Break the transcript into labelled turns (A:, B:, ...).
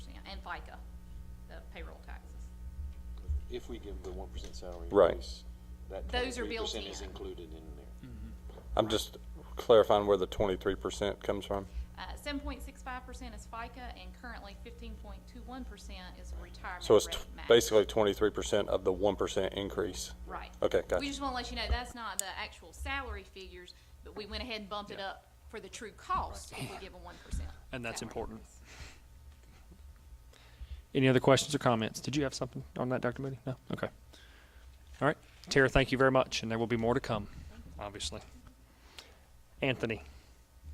A: FICA, the payroll taxes.
B: If we give the one percent salary
C: Right.
B: increase, that
A: Those are
B: twenty-three
A: built
B: percent is
A: in.
B: included in there.
D: Mm-hmm.
C: I'm just clarifying where the twenty-three percent comes from.
A: Uh, Seven point six five percent is FICA, and currently fifteen point two one percent is retirement
C: So it's
A: rate
C: t-
A: match.
C: basically twenty-three percent of the one percent increase.
A: Right.
C: Okay,
A: We
C: gotcha.
A: just want to let you know, that's not the actual salary figures, but we went ahead and bumped it up for the true cost if we give a one percent.
D: And that's important. Any other questions or comments? Did you have something on that, Dr. Moody? No? Okay. All right. Tara, thank you very much, and there will be more to come, obviously. Anthony,